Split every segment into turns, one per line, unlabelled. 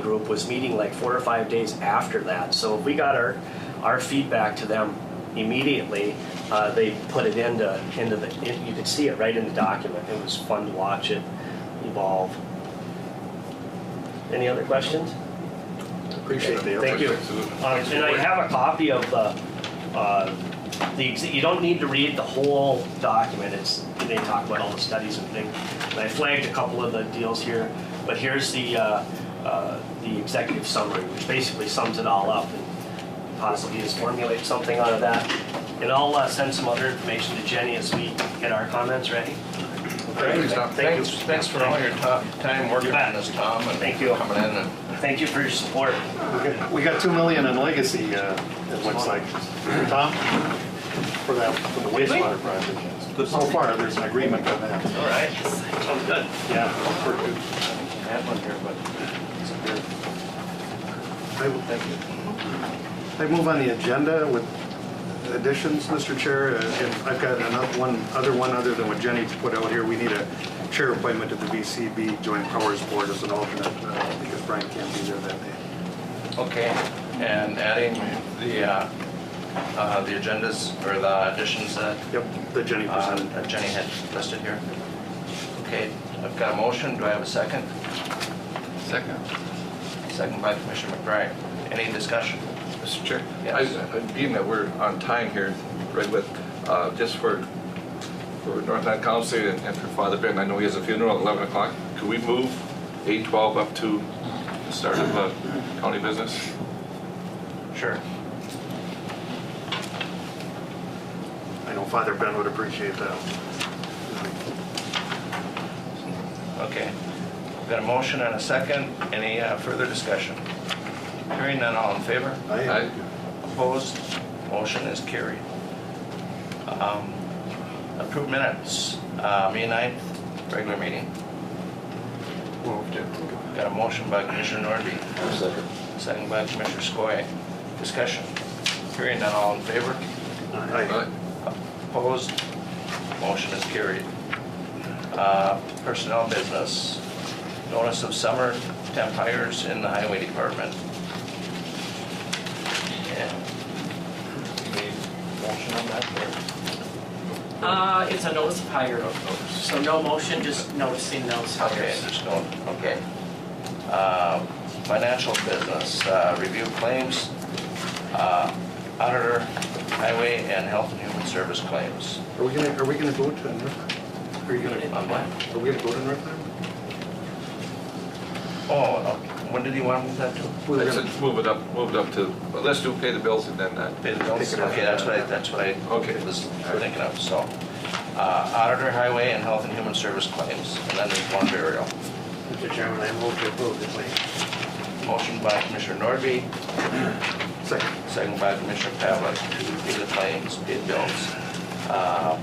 group was meeting like four or five days after that. So if we got our, our feedback to them immediately, uh, they put it into, into the, it- you could see it right in the document. It was fun to watch it evolve. Any other questions?
Appreciate the effort.
Thank you.
Absolutely.
Uh, And I have a copy of the, uh, the, ex- you don't need to read the whole document, it's, they talk about all the studies and things. And I flagged a couple of the deals here, but here's the, uh, uh, the executive summary, which basically sums it all up and possibly just formulate something out of that. And I'll uh, send some other information to Jenny as we get our comments ready.
Thank you, Tom.
Thank you.
Thanks, thanks for all your top time working on this, Tom, and
Thank you.
coming in and
Thank you for your support.
We got- We got two million in legacy, uh, it looks like, Tom, for that, for the wastewater project. So far, there's an agreement on that,
All right. Sounds good.
yeah. we're good. I will- I move on the agenda with additions, Mr. Chair, uh, and I've got another one, other one other than what Jenny put out here. We need a chair appointment to the VCB Joint Powers Board as an alternate, uh, because Brian can't be there that day.
Okay, and adding the, uh, uh, the agendas or the additions that
Yep, that Jenny
uh,
presented.
that Jenny had listed here. Okay, I've got a motion, do I have a second?
Second.
Second by Commissioner McBride. Any discussion?
Mr. Chair?
Yes.
I- I- Being that we're on time here, Redwood, uh, just for, for North Island Council and and for Father Ben, I know he has a funeral at 11 o'clock. Could we move 8:12 up to the start of uh, county business?
Sure.
I know Father Ben would appreciate that.
Okay. Got a motion and a second. Any uh, further discussion? Hearing none, all in favor?
I,
Aye.
Opposed? Motion is carried. Um, Approved minutes, uh, May 9th, regular meeting.
Moved it.
Got a motion by Commissioner Norby,
Second.
second by Commissioner Skoye. Discussion. Hearing none, all in favor?
I,
Opposed? Motion is carried. Uh, Personnel business. Notice of summer temp hires in the highway department. And Any motion on that? or-
Uh, it's a notice of hire, so no motion, just noticing those
Okay,
hires.
just don't, okay. Uh, Financial business, uh, review claims, uh, auditor, highway, and health and human service claims.
are we gonna, are we gonna go to North? Are you gonna,
On what?
are we gonna go to North Iowa?
Oh, okay. when did he want to move that to?
We were
Let's
gonna-
just move it up, move it up to, well, let's do pay the bills and then uh, that.
Pay the bills?
Pick it up.
Okay, that's what I, that's what I
Okay.
was thinking of, so. uh, Auditor, highway, and health and human service claims, and then there's one burial.
Mr. Chairman, I move to approve the claim.
Motion by Commissioner Norby,
Second.
Second by Commissioner Pavlik to pay the claims, pay the bills. Uh,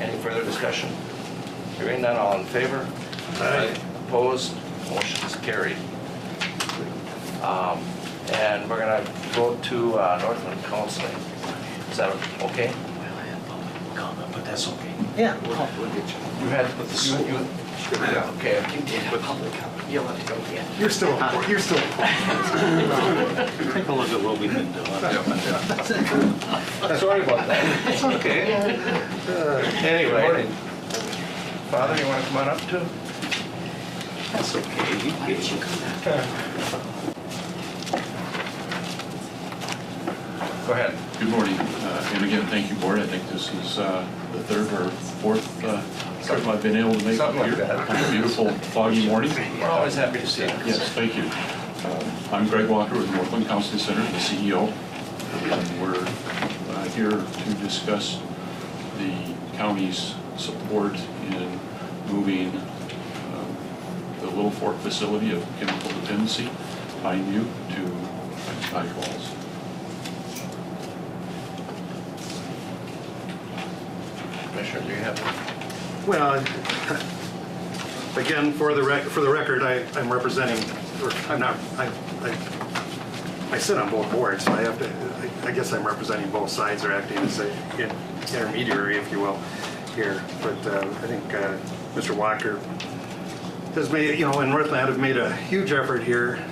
Any further discussion? Hearing none, all in favor? Opposed? Motion is carried. Um, And we're going to go to uh, Northland Counseling. Is that okay?
Comment, but that's okay.
You had, you- you-
Yeah.
okay.
You did a public comment, you'll have to go again.
You're still, you're still.
Take a look at what we've been doing.
Sorry about that.
It's okay.
Anyway. Father, you want to come on up too?
That's okay. You
Why
can-
did you come back?
Go ahead.
Good morning, Uh, and again, thank you, Board. I think this is uh, the third or fourth uh, trip I've been able to make
Something like
here
that.
on a beautiful foggy morning.
We're always happy to see you.
Yes, thank you. Um, I'm Greg Walker with Northland Counseling Center, the CEO. And we're uh, here to discuss the county's support in moving um, the Little Fork facility of chemical dependency, Pineview, to Niagara Falls.
Commissioner, do you have?
Well, again, for the rec, for the record, I, I'm representing, or I'm not, I, I, I sit on both boards, so I have to, I I guess I'm representing both sides or acting as a in- intermediary, if you will, here. But uh, I think uh, Mr. Walker has made, you know, and Northland have made a huge effort here